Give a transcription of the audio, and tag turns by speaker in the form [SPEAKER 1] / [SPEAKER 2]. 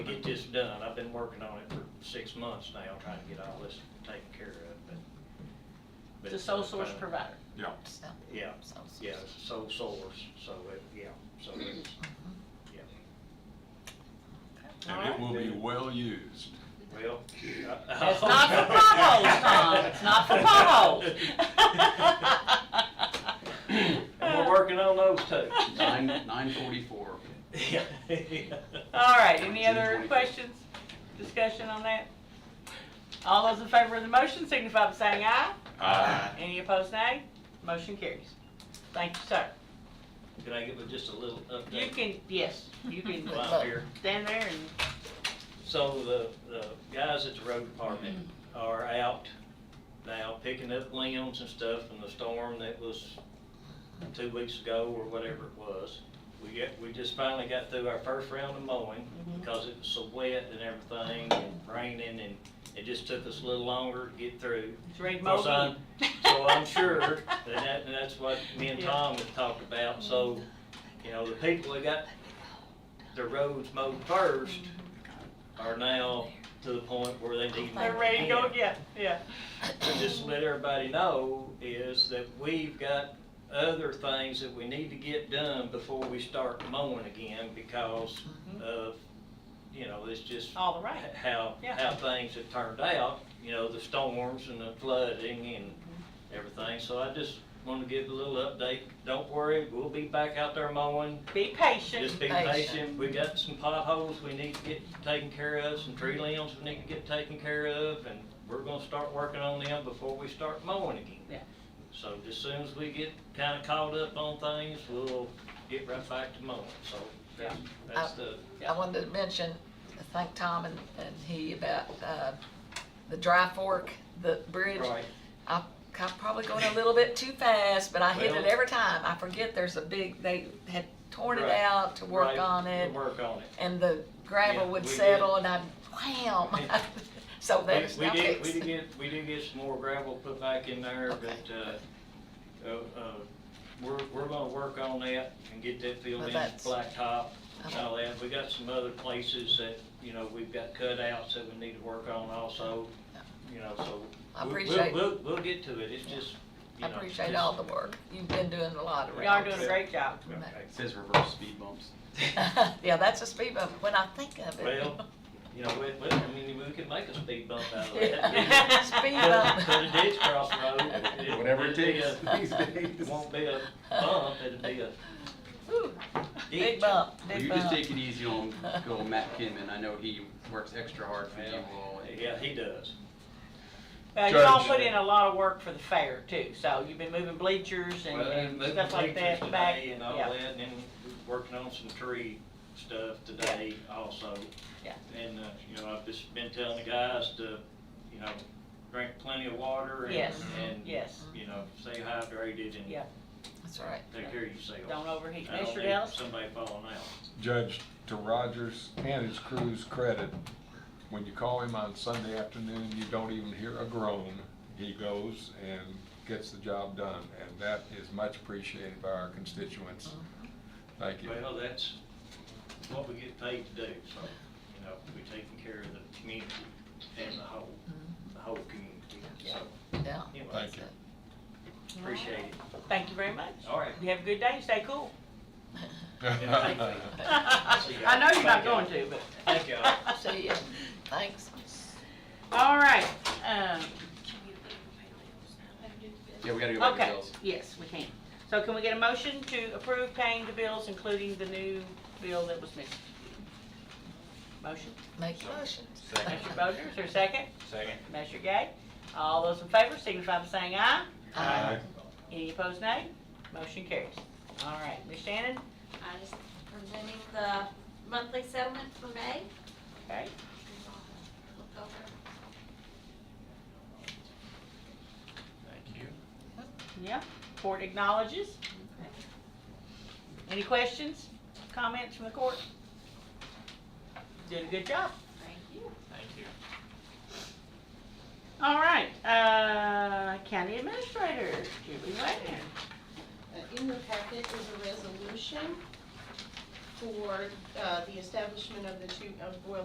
[SPEAKER 1] Get this done, I've been working on it for six months now, trying to get all this taken care of, but. but
[SPEAKER 2] It's a sole source
[SPEAKER 1] uh,
[SPEAKER 2] provider.
[SPEAKER 3] Yeah,
[SPEAKER 4] So,
[SPEAKER 1] Yeah,
[SPEAKER 4] so- so-
[SPEAKER 1] yeah, it's a sole source, so it, yeah, so
[SPEAKER 2] Mm-hmm.
[SPEAKER 1] it's, yeah.
[SPEAKER 3] and it will be well used.
[SPEAKER 1] Well. uh,
[SPEAKER 2] It's not for potholes, Tom, it's not for potholes.
[SPEAKER 1] And we're working on those too.
[SPEAKER 5] Nine, nine forty-four.
[SPEAKER 1] Yeah.
[SPEAKER 2] All right, any other
[SPEAKER 5] June 25th.
[SPEAKER 2] questions, discussion on that? All those in favor of the motion signify by saying aye.
[SPEAKER 3] Uh,
[SPEAKER 2] Any opposed, nay? Motion carries. Thank you, sir.
[SPEAKER 1] Can I give it just a little update?
[SPEAKER 2] You can, yes, you can
[SPEAKER 1] While I'm here.
[SPEAKER 2] stand there and,
[SPEAKER 1] So the, the guys at the road department are out now picking up limbs and stuff from the storm that was two weeks ago or whatever it was. We get, we just finally got through our first round of mowing
[SPEAKER 2] Mhm.
[SPEAKER 1] because it was so wet and everything and raining and it just took us a little longer to get through.
[SPEAKER 2] it's ready to
[SPEAKER 1] Well,
[SPEAKER 2] mow
[SPEAKER 1] son,
[SPEAKER 2] deep.
[SPEAKER 1] So I'm sure that, that, and that's what me and
[SPEAKER 2] Yeah.
[SPEAKER 1] Tom have talked about, so, you know, the people that got their roads mowed first are now to the point where they need.
[SPEAKER 2] They're ready to go
[SPEAKER 1] mowing
[SPEAKER 2] again, yeah.
[SPEAKER 1] but just to let everybody know is that we've got other things that we need to get done before we start mowing again because
[SPEAKER 2] Mhm.
[SPEAKER 1] of, you know, it's just.
[SPEAKER 2] All the rain.
[SPEAKER 1] How,
[SPEAKER 2] Yeah.
[SPEAKER 1] how things have turned out, you know, the storms and the flooding and
[SPEAKER 2] Mm-hmm.
[SPEAKER 1] everything. So I just want to give a little update. Don't worry, we'll be back out there mowing.
[SPEAKER 2] Be patient.
[SPEAKER 1] Just be
[SPEAKER 4] Patient.
[SPEAKER 1] patient, we got some potholes we need to get taken care of, some tree limbs we need to get taken care of, and we're gonna start working on them before we start mowing again.
[SPEAKER 2] Yeah.
[SPEAKER 1] So as soon as we get kinda caught up on things, we'll get right back to mowing, so that's, that's the,
[SPEAKER 4] I wanted to mention, thank Tom and, and he about, uh, the dry fork, the bridge.
[SPEAKER 1] right,
[SPEAKER 4] I, I'm probably going a little bit too fast, but I hit it
[SPEAKER 1] Well-
[SPEAKER 4] every time. I forget there's a big, they had torn it
[SPEAKER 1] Right,
[SPEAKER 4] out to work
[SPEAKER 1] right,
[SPEAKER 4] on
[SPEAKER 1] we'll
[SPEAKER 4] it,
[SPEAKER 1] Work on it.
[SPEAKER 4] and the
[SPEAKER 1] Yeah,
[SPEAKER 4] gravel would
[SPEAKER 1] we did.
[SPEAKER 4] settle, and I'd wham.
[SPEAKER 1] Yeah.
[SPEAKER 4] Oh, So
[SPEAKER 1] We-
[SPEAKER 4] that's
[SPEAKER 1] We
[SPEAKER 4] now
[SPEAKER 1] did, we
[SPEAKER 4] fixed.
[SPEAKER 1] did get, we did get some more gravel put back in there,
[SPEAKER 4] Okay.
[SPEAKER 1] but, uh, uh, uh, we're, we're gonna work on that and get that filled
[SPEAKER 4] Well,
[SPEAKER 1] in,
[SPEAKER 4] that's- Uh-huh.
[SPEAKER 1] blacktop and
[SPEAKER 4] Okay.
[SPEAKER 1] all that. We got some other places that, you know, we've got cutouts that we need to work on also, you know, so.
[SPEAKER 4] I
[SPEAKER 1] we'll- we'll-
[SPEAKER 4] appreciate-
[SPEAKER 1] We'll, we'll get to it, it's just, you
[SPEAKER 4] I
[SPEAKER 1] know.
[SPEAKER 4] appreciate
[SPEAKER 1] just-
[SPEAKER 4] all the work. You've been doing a lot around.
[SPEAKER 2] Y'all are doing a great job.
[SPEAKER 1] Okay.
[SPEAKER 5] It says reverse speed bumps.
[SPEAKER 4] Yeah, that's a speed bump, when I think of it.
[SPEAKER 1] Well, you know, we, we, I mean, we could make a speed bump out of that.
[SPEAKER 4] Yeah. Speed
[SPEAKER 1] Put- Put a
[SPEAKER 4] bump.
[SPEAKER 1] ditch cross road. it-
[SPEAKER 5] Whatever it
[SPEAKER 1] it'd be
[SPEAKER 5] takes
[SPEAKER 1] a-
[SPEAKER 5] these days.
[SPEAKER 1] It won't be a bump, it'll be a
[SPEAKER 4] Whew,
[SPEAKER 1] ditch.
[SPEAKER 4] Big bump,
[SPEAKER 5] Well,
[SPEAKER 4] big
[SPEAKER 5] you just
[SPEAKER 4] bump.
[SPEAKER 5] take it easy on good old Matt Kinman. I know he works extra hard for you all. and-
[SPEAKER 1] Yeah, he does.
[SPEAKER 2] Uh, you all
[SPEAKER 5] Judge.
[SPEAKER 2] put in a lot of work for the fair too, so you've been moving bleachers and-
[SPEAKER 1] Well, and
[SPEAKER 2] and
[SPEAKER 1] moving
[SPEAKER 2] stuff like
[SPEAKER 1] bleachers
[SPEAKER 2] that back.
[SPEAKER 1] today And all
[SPEAKER 2] yeah.
[SPEAKER 1] that, and then working on some tree stuff today also.
[SPEAKER 2] Yeah.
[SPEAKER 1] And, uh, you know, I've just been telling the guys to, you know, drink plenty of water and,
[SPEAKER 2] Yes,
[SPEAKER 1] and,
[SPEAKER 2] yes.
[SPEAKER 1] you know, stay hydrated
[SPEAKER 2] Yeah.
[SPEAKER 1] and
[SPEAKER 4] That's all right.
[SPEAKER 1] take care of yourself.
[SPEAKER 2] Don't overheat.
[SPEAKER 1] I don't
[SPEAKER 2] Mr.
[SPEAKER 1] need
[SPEAKER 2] Dallas?
[SPEAKER 1] Somebody falling out.
[SPEAKER 3] Judge, to Rogers and his crew's credit, when you call him on Sunday afternoon, you don't even hear a groan. He goes and gets the job done, and that is much appreciated by our constituents. Thank you.
[SPEAKER 1] Well, that's what we get paid to do, so, you know, we're taking care of the community and the whole, the whole community, so,
[SPEAKER 4] Yeah.
[SPEAKER 1] anyway.
[SPEAKER 3] Thank you.
[SPEAKER 1] Appreciate it.
[SPEAKER 2] Thank you very much.
[SPEAKER 1] All right.
[SPEAKER 2] You have a good day, stay cool.
[SPEAKER 1] Yeah. See ya.
[SPEAKER 2] I know you're not going to, but.
[SPEAKER 1] Thank y'all.
[SPEAKER 4] See ya. Thanks.
[SPEAKER 2] All right, um,
[SPEAKER 5] Yeah, we gotta go back to
[SPEAKER 2] okay,
[SPEAKER 5] bills.
[SPEAKER 2] yes, we can. So can we get a motion to approve paying the bills, including the new bill that was missed? Motion,
[SPEAKER 4] Make the motions.
[SPEAKER 2] Mr. Bowden, is there a second?
[SPEAKER 1] Second.
[SPEAKER 2] Mr. Gay, all those in favor signify by saying aye.
[SPEAKER 4] Aye.
[SPEAKER 2] Any opposed, nay? Motion carries. All right, Ms. Shannon,
[SPEAKER 6] I just presenting the monthly settlement for May.
[SPEAKER 2] okay,
[SPEAKER 6] Look over.
[SPEAKER 1] Thank you.
[SPEAKER 2] yeah, court acknowledges. Any questions, comments from the court? Did a good job.
[SPEAKER 6] Thank you.
[SPEAKER 1] Thank you.
[SPEAKER 2] All right, uh, county administrator, Julie Wagner.
[SPEAKER 7] Uh, In your packet is a resolution for uh, the establishment of the two, of Boyle